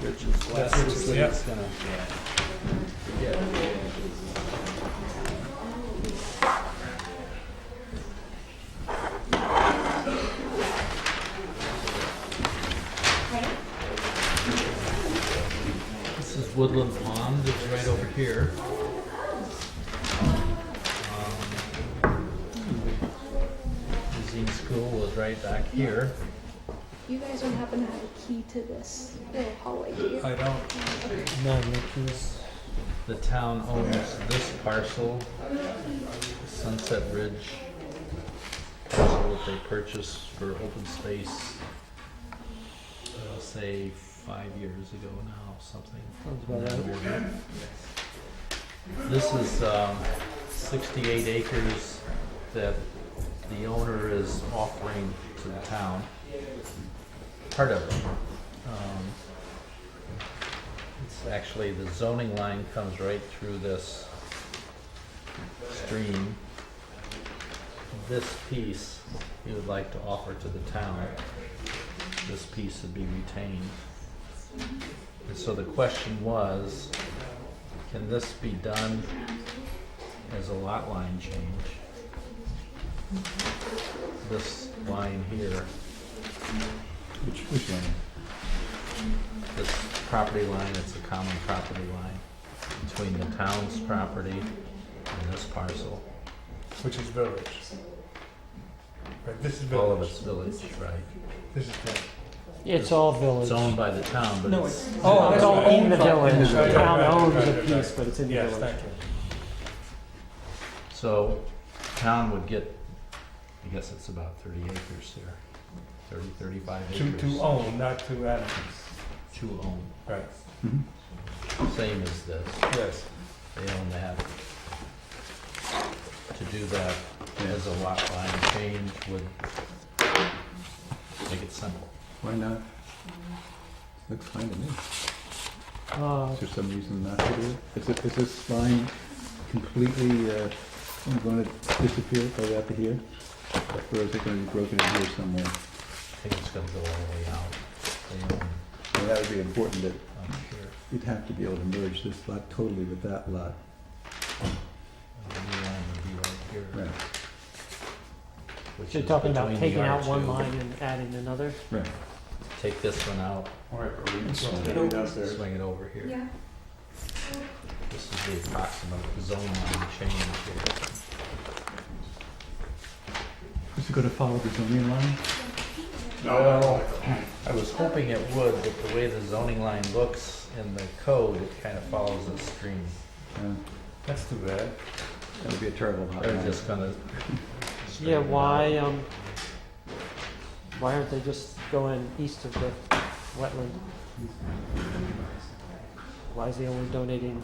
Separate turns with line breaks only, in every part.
Yep. This is Woodland Pond, it's right over here. Museum Um, School was right back here.
You guys don't happen to have a key to this little hallway, do you?
I don't, no, Mickey's. The town owns this parcel, Sunset Ridge. Parcel that they purchased for open space, I'll say five years ago now, something. This is, um, sixty-eight acres that the owner is offering to the town. Part of it. Um, It's actually, the zoning line comes right through this stream. This piece he would like to offer to the town. This piece would be retained. And so the question was, can this be done as a lot line change? This line here,
Which, which line?
this property line, it's a common property line between the town's property and this parcel.
which is village. Right, this is
All of
village.
it's village, right?
This is village.
It's all
It's
village.
owned by the town, but it's,
Oh, it's all in
In
the
the
village. The
village.
town
Right,
owns
right,
a
right,
piece,
right.
but it's in the
Yes,
village.
thank you.
so town would get, I guess it's about thirty acres there. Thirty, thirty-five
To,
acres.
to own, not to animals.
To own,
Right,
same as this.
yes.
They own that. To do that as a lot line change would make it simple.
Why not? Looks fine to me.
Uh,
Is there some reason not to do it? Is it, is this line completely, uh, gonna disappear right after here? Or is it gonna be broken in here somewhere?
I think it's gonna go all the way out. They own
Well, that would be important that
up here.
you'd have to be able to merge this lot totally with that lot.
And The new line would be right here.
Right,
which
You're
is
talking about
between the
taking out one
R2.
line and adding another?
right.
Take this one out,
All right, but we can
Swing
swing
it.
it downstairs.
swing it over here.
Yeah.
This is the approximate zone line change here.
Is it gonna follow the zoning line?
Well, I was hoping it would, but the way the zoning line looks in the code, it kind of follows a stream.
Yeah,
That's too bad.
Uh, that would be a terrible lot
They're
line.
just gonna.
Yeah, why, um, why aren't they just going east of the wetland? Why is he only donating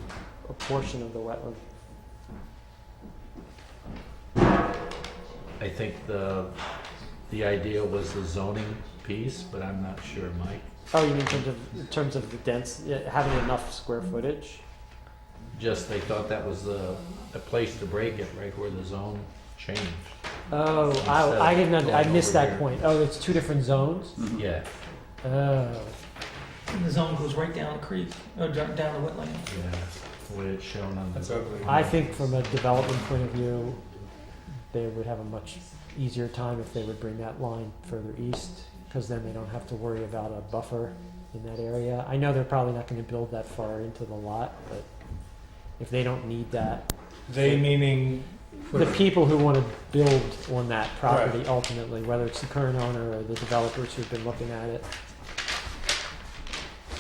a portion of the wetland?
I think the, the idea was the zoning piece, but I'm not sure, Mike.
Oh, you mean in terms of, in terms of the dense, yeah, having enough square footage?
Just they thought that was the, the place to break it, right where the zone changed.
Oh,
Instead
I, I
of
didn't, under- I
going
missed
over
that
here.
point. Oh, it's two different zones?
Mhm.
Yeah,
Oh,
And the zone goes right down the creek, or down down the wetland.
yeah, the way it's shown on
That's
the,
ugly.
I think from a development point of view, they would have a much easier time if they would bring that line further east, because then they don't have to worry about a buffer in that area. I know they're probably not gonna build that far into the lot, but if they don't need that,
They meaning,
the people who wanna build on that property ultimately, whether it's the current owner or the developers who've been looking at it,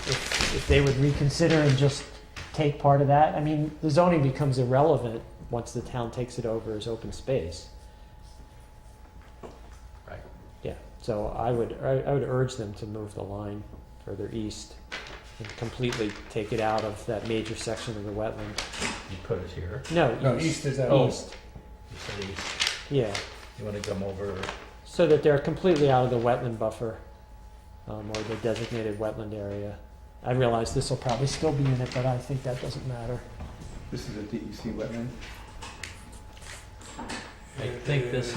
if, if they would reconsider and just take part of that, I mean, the zoning becomes irrelevant once the town takes it over as open space.
Right.
Yeah, so I would, I, I would urge them to move the line further east and completely take it out of that major section of the wetland.
you put it here,
no,
No, east,
east is that.
east,
you said east,
yeah.
you wanna come over,
So that they're completely out of the wetland buffer, um, or the designated wetland area. I realize this will probably still be in it, but I think that doesn't matter.
E This is a DEC wetland?
I think this